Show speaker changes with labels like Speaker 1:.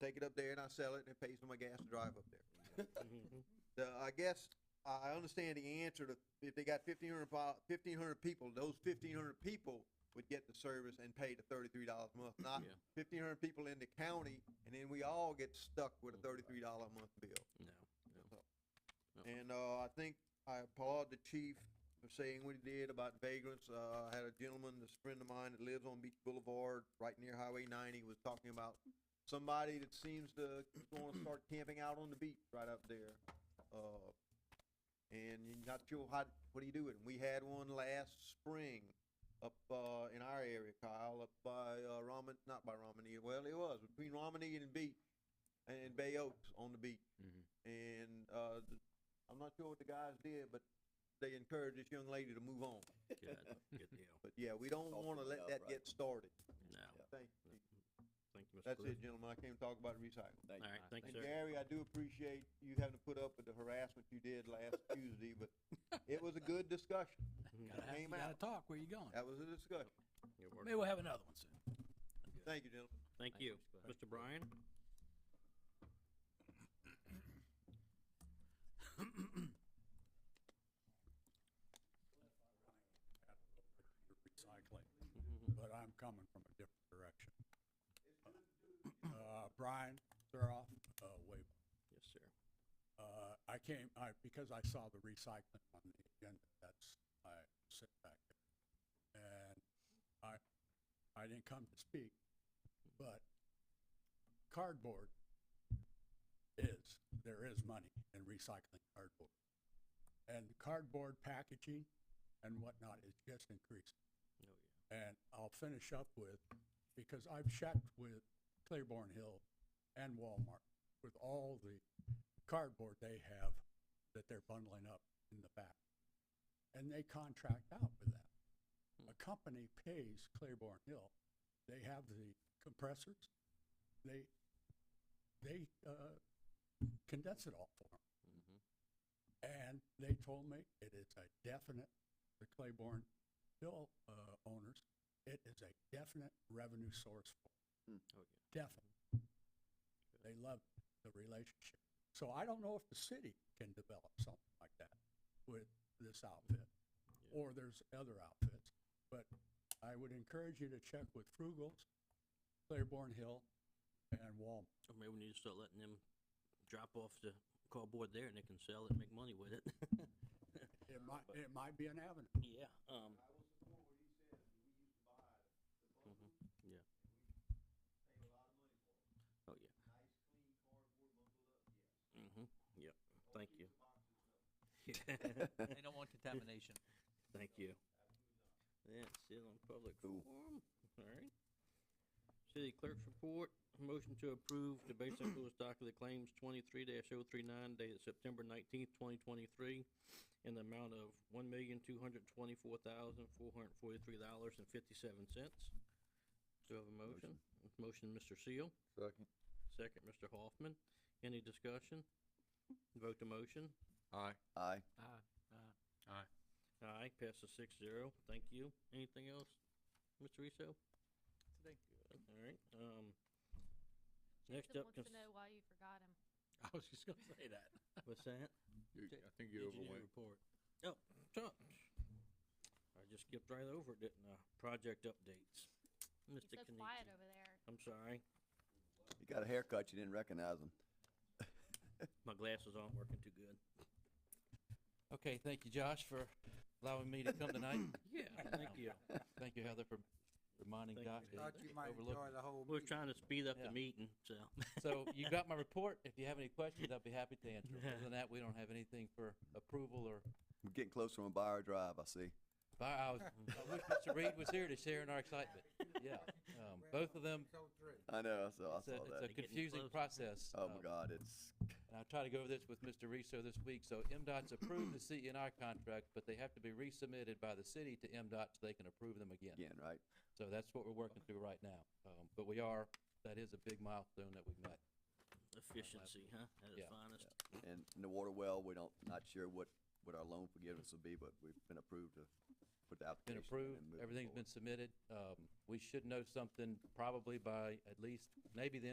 Speaker 1: take it up there and I sell it and it pays for my gas to drive up there.
Speaker 2: Mm-hmm.
Speaker 1: The, I guess, I I understand the answer to, if they got fifteen hundred fifteen hundred people, those fifteen hundred people would get the service and pay the thirty-three dollars a month, not
Speaker 2: Yeah.
Speaker 1: fifteen hundred people in the county, and then we all get stuck with a thirty-three dollar a month bill.
Speaker 2: No, no. Yeah.
Speaker 1: And, uh, I think I applaud the chief for saying what he did about vagrants. Uh, I had a gentleman, this friend of mine that lives on Beach Boulevard, right near Highway ninety, was talking about somebody that seems to wanna start camping out on the beach right up there. Uh, and you're not sure how, what do you do with 'em. We had one last spring up, uh, in our area, Kyle, up by, uh, Ramen, not by Romney, well, it was between Romney and Beach, and Bay Oaks on the beach.
Speaker 2: Mhm.
Speaker 1: And, uh, th- I'm not sure what the guys did, but they encouraged this young lady to move on.
Speaker 2: Good, good deal.
Speaker 1: But yeah, we don't
Speaker 3: Soften
Speaker 1: wanna
Speaker 3: it
Speaker 1: let
Speaker 3: up,
Speaker 1: that
Speaker 3: right.
Speaker 1: get started.
Speaker 2: No.
Speaker 1: Thank
Speaker 2: Yeah.
Speaker 1: you.
Speaker 2: Thank you, Mr.
Speaker 1: That's
Speaker 2: Griffin.
Speaker 1: it, gentlemen. I came to talk about recycling.
Speaker 3: Thank
Speaker 2: All
Speaker 3: you.
Speaker 2: right, thank you,
Speaker 1: And
Speaker 2: sir.
Speaker 1: Gary, I do appreciate you having to put up with the harassment you did last Tuesday, but it was a good discussion.
Speaker 4: Gotta, have, you
Speaker 1: Came
Speaker 4: gotta
Speaker 1: out.
Speaker 4: talk. Where you going?
Speaker 1: That was a discussion.
Speaker 2: You're welcome.
Speaker 4: Maybe we'll have another one soon.
Speaker 1: Thank you, gentlemen.
Speaker 2: Thank you. Mr. Bryan?
Speaker 5: recycling,
Speaker 2: Mm-hmm.
Speaker 5: but I'm coming from a different direction. Uh, Brian Thuroff, uh, Wave.
Speaker 2: Yes, sir. Oh,
Speaker 5: Uh, I came, I, because I saw the recycling on the agenda, that's, I sit back there. And I, I didn't come to speak, but cardboard is, there is money in recycling cardboard. And cardboard packaging and whatnot is just increasing.
Speaker 2: Oh, yeah.
Speaker 5: And I'll finish up with, because I've checked with Claiborne Hill and Walmart with all the cardboard they have that they're bundling up in the back. And they contract out with that. A company pays Claiborne Hill. They have the compressors. They, they, uh, condense it all for them.
Speaker 2: Mm-hmm.
Speaker 5: And they told me it is a definite, the Claiborne Hill uh, owners, it is a definite revenue source for 'em.
Speaker 2: Oh,
Speaker 5: definite. They love the relationship. So I don't know if the city can develop something like that with this outfit,
Speaker 2: Yeah.
Speaker 5: or there's other outfits. But I would encourage you to check with Frugals, Claiborne Hill, and Walmart.
Speaker 2: yeah. Or maybe we need to start letting them drop off the cardboard there and they can sell it and make money with it.
Speaker 5: It might, it might be an avenue.
Speaker 2: Yeah, um. Mhm, Yeah. Oh, yeah. Mm-hmm, yep, thank you.
Speaker 4: They don't want contamination.
Speaker 2: Thank you. That's it on public
Speaker 3: Cool.
Speaker 2: forum, alright. City clerk's report, motion to approve the basic rules docket of claims twenty-three dash oh three nine dated September nineteenth, twenty twenty-three in the amount of one million, two hundred twenty-four thousand, four hundred forty-three dollars and fifty-seven cents. Do I have a motion? Motion, Mr. Seal,
Speaker 3: Second.
Speaker 2: second, Mr. Hoffman. Any discussion? Vote the motion.
Speaker 3: Aye.
Speaker 6: Ah.
Speaker 2: Aye, passes six zero. Thank you. Anything else, Mr. Russo?
Speaker 4: Today.
Speaker 2: All right, um, next
Speaker 7: Tim
Speaker 2: up,
Speaker 7: wants
Speaker 2: cons-
Speaker 7: to know why you forgot him.
Speaker 4: I was just gonna say that.
Speaker 2: what's that?
Speaker 4: J-
Speaker 8: I think you
Speaker 2: Engineer
Speaker 8: overwent.
Speaker 2: report. Oh, Chuck. I just skipped right over it, didn't I? Project updates.
Speaker 7: He's
Speaker 2: Mr.
Speaker 7: so
Speaker 2: Kenichi.
Speaker 7: quiet over there.
Speaker 2: I'm sorry,
Speaker 3: You got a haircut, you didn't recognize him.
Speaker 2: my glasses aren't working too good.
Speaker 6: Okay, thank you, Josh, for allowing me to come tonight.
Speaker 2: Yeah, thank you.
Speaker 6: Thank you, Heather, for reminding
Speaker 2: Thank
Speaker 6: Josh.
Speaker 2: you.
Speaker 6: that
Speaker 2: Thought
Speaker 6: he overlooked me.
Speaker 2: We We're trying to speed up the
Speaker 6: Yeah.
Speaker 2: meeting, so.
Speaker 6: So you got my report. If you have any questions, I'll be happy to answer. Other than that, we don't have anything for approval or,
Speaker 3: We're getting closer on Buyer Drive, I see.
Speaker 6: but I was, I wish Mr. Reed was here to share in our excitement. Yeah, um, both of them,
Speaker 3: I know, I saw, Oh, I saw
Speaker 6: it's a, it's a
Speaker 3: that.
Speaker 2: They're getting
Speaker 6: confusing
Speaker 2: close.
Speaker 6: process.
Speaker 3: Oh my
Speaker 6: um,
Speaker 3: God, it's,
Speaker 6: And I'll try to go over this with Mr. Riso this week. So MDOT's approved the CNI contract, but they have to be resubmitted by the city to MDOT so they can approve them again.
Speaker 3: again, right?
Speaker 6: So that's what we're working through right now. Um, but we are, that is a big milestone that we've met.
Speaker 2: Efficiency, huh? At its
Speaker 6: Yeah,
Speaker 2: finest.
Speaker 3: And in the water well, we don't, not sure what, what our loan forgiveness will be, but we've been approved to put the application. in
Speaker 6: Been
Speaker 3: and
Speaker 6: approved,
Speaker 3: moving
Speaker 6: everything's
Speaker 3: forward.
Speaker 6: been submitted. Um, we should know something probably by at least, maybe the end